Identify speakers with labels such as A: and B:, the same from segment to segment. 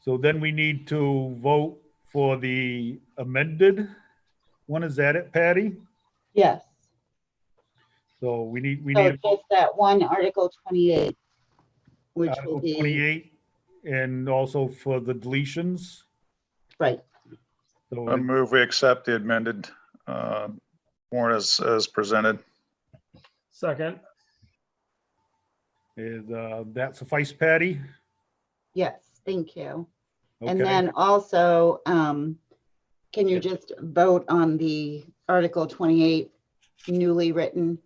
A: So then we need to vote for the amended one. Is that it, Patty?
B: Yes.
A: So we need, we
B: So
A: need
B: just that one Article 28, which will
A: Article
B: be,
A: 28 and also for the deletions.
B: right,
A: So
C: I move we accept the amended uh, warrant as, as presented.
D: Second,
A: is uh, that suffice, Patty?
B: yes, thank you. And
A: Okay.
B: then also, um, can you just vote on the Article 28 newly written?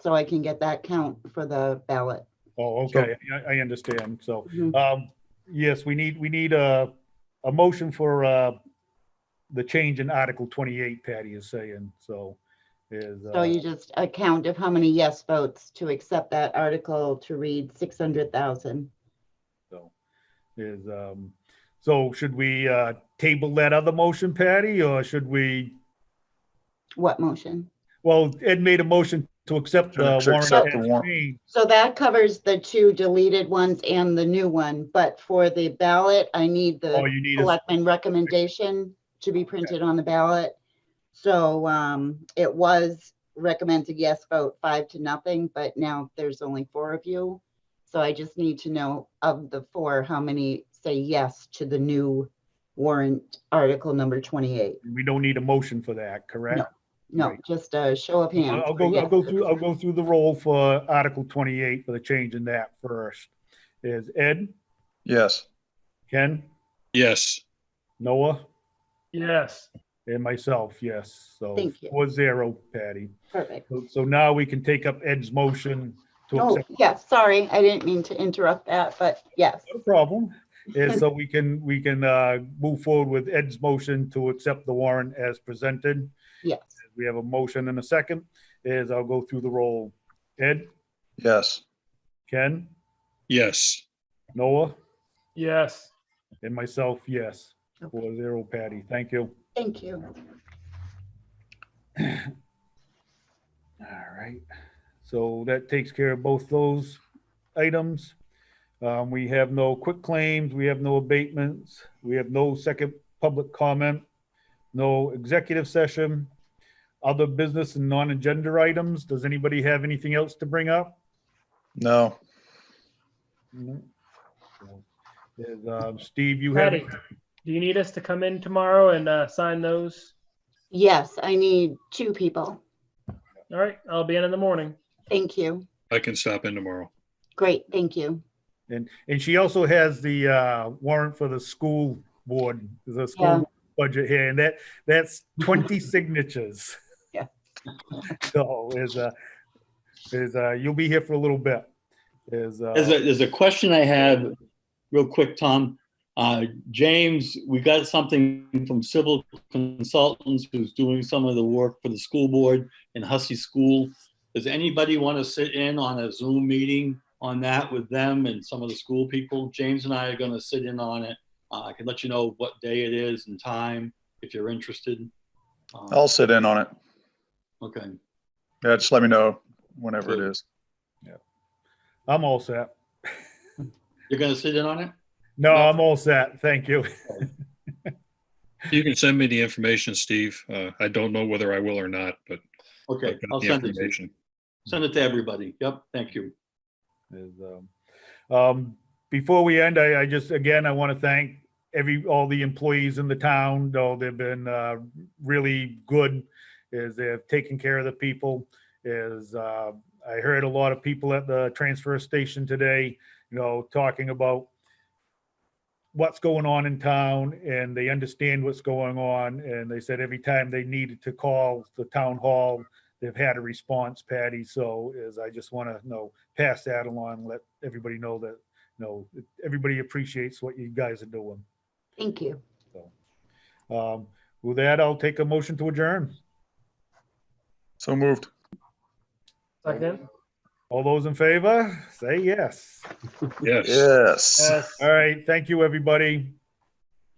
B: So I can get that count for the ballot.
A: Oh, okay, I, I understand. So,
B: Mhm.
A: um, yes, we need, we need a, a motion for, uh, the change in Article 28, Patty is saying, so is.
B: So
A: uh,
B: you just a count of how many yes votes to accept that article to read 600,000.
A: So, is, um, so should we, uh, table that other motion, Patty, or should we,
B: What motion?
A: well, Ed made a motion to accept
C: To
A: the warrant.
C: accept the
A: as
C: warrant.
A: changed.
B: So that covers the two deleted ones and the new one, but for the ballot, I need
A: All
B: the
A: you need is,
B: selectman recommendation to be printed on the ballot. So um, it was recommended yes vote five to nothing, but now there's only four of you. So I just need to know of the four, how many say yes to the new warrant article number 28?
A: we don't need a motion for that, correct?
B: No,
A: Right.
B: just a show of hands.
A: I'll I'll
B: for
A: go, I'll
B: yes.
A: go through, I'll go through the roll for Article 28 for the change in that first. Is Ed,
C: Yes,
A: Ken,
E: Yes,
A: Noah,
D: yes,
A: and myself, yes. So
B: Thank you.
A: four zero, Patty.
B: Perfect.
A: So- So now we can take up Ed's motion to
B: Oh,
A: accept.
B: yes, sorry, I didn't mean to interrupt that, but yes.
A: No problem. And so we can, we can uh, move forward with Ed's motion to accept the warrant as presented.
B: Yes,
A: We have a motion and a second. Is I'll go through the roll. Ed,
C: yes,
A: Ken,
E: yes,
A: Noah,
D: yes,
A: and myself, yes.
B: Okay.
A: Four zero, Patty. Thank you.
B: thank you.
A: All right, so that takes care of both those items. Um, we have no quick claims, we have no abatements, we have no second public comment, no executive session, other business and non-agenda items. Does anybody have anything else to bring up?
C: no,
A: No. So, is, um, Steve, you have,
D: Patty, do you need us to come in tomorrow and uh, sign those?
B: Yes, I need two people.
D: All right, I'll be in in the morning.
B: Thank you.
E: I can stop in tomorrow.
B: Great, thank you.
A: and, and she also has the, uh, warrant for the school board, the
B: Yeah.
A: school budget here, and that, that's twenty signatures.
B: Yeah.
A: So is, uh, is, uh, you'll be here for a little bit. Is, uh,
F: There's a, there's a question I have, real quick, Tom. Uh, James, we got something from Civil Consultants who's doing some of the work for the school board in Hussey School. Does anybody want to sit in on a Zoom meeting on that with them and some of the school people? James and I are going to sit in on it. Uh, I can let you know what day it is and time if you're interested. Uh,
C: I'll sit in on it.
F: Okay,
C: Yeah, just let me know whenever it is.
A: I'm all set.
F: you're going to sit in on it?
A: No, I'm all set. Thank you.
E: You can send me the information, Steve. Uh, I don't know whether I will or not, but
F: Okay,
E: I've got
F: I'll
E: the
F: send it to you.
E: information.
F: Send it to everybody. Yep, thank you.
A: is, um, um, Before we end, I, I just, again, I want to thank every, all the employees in the town, though they've been uh, really good, is they've taken care of the people, is, uh, I heard a lot of people at the transfer station today, you know, talking about what's going on in town, and they understand what's going on, and they said every time they needed to call the town hall, they've had a response, Patty, so is, I just want to know, pass that along, let everybody know that, you know, everybody appreciates what you guys are doing.
B: Thank you.
A: Um, with that, I'll take a motion to adjourn.
C: So moved.
D: Second,
A: All those in favor, say yes.
E: Yes.
C: Yes.
D: yes.
A: All right, thank you, everybody.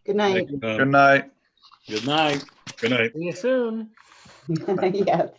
B: Good
E: Thank
B: night.
E: you,
C: Good
E: Tom.
C: night.
F: Good night.
E: Good night.
D: See you soon.
B: Yes.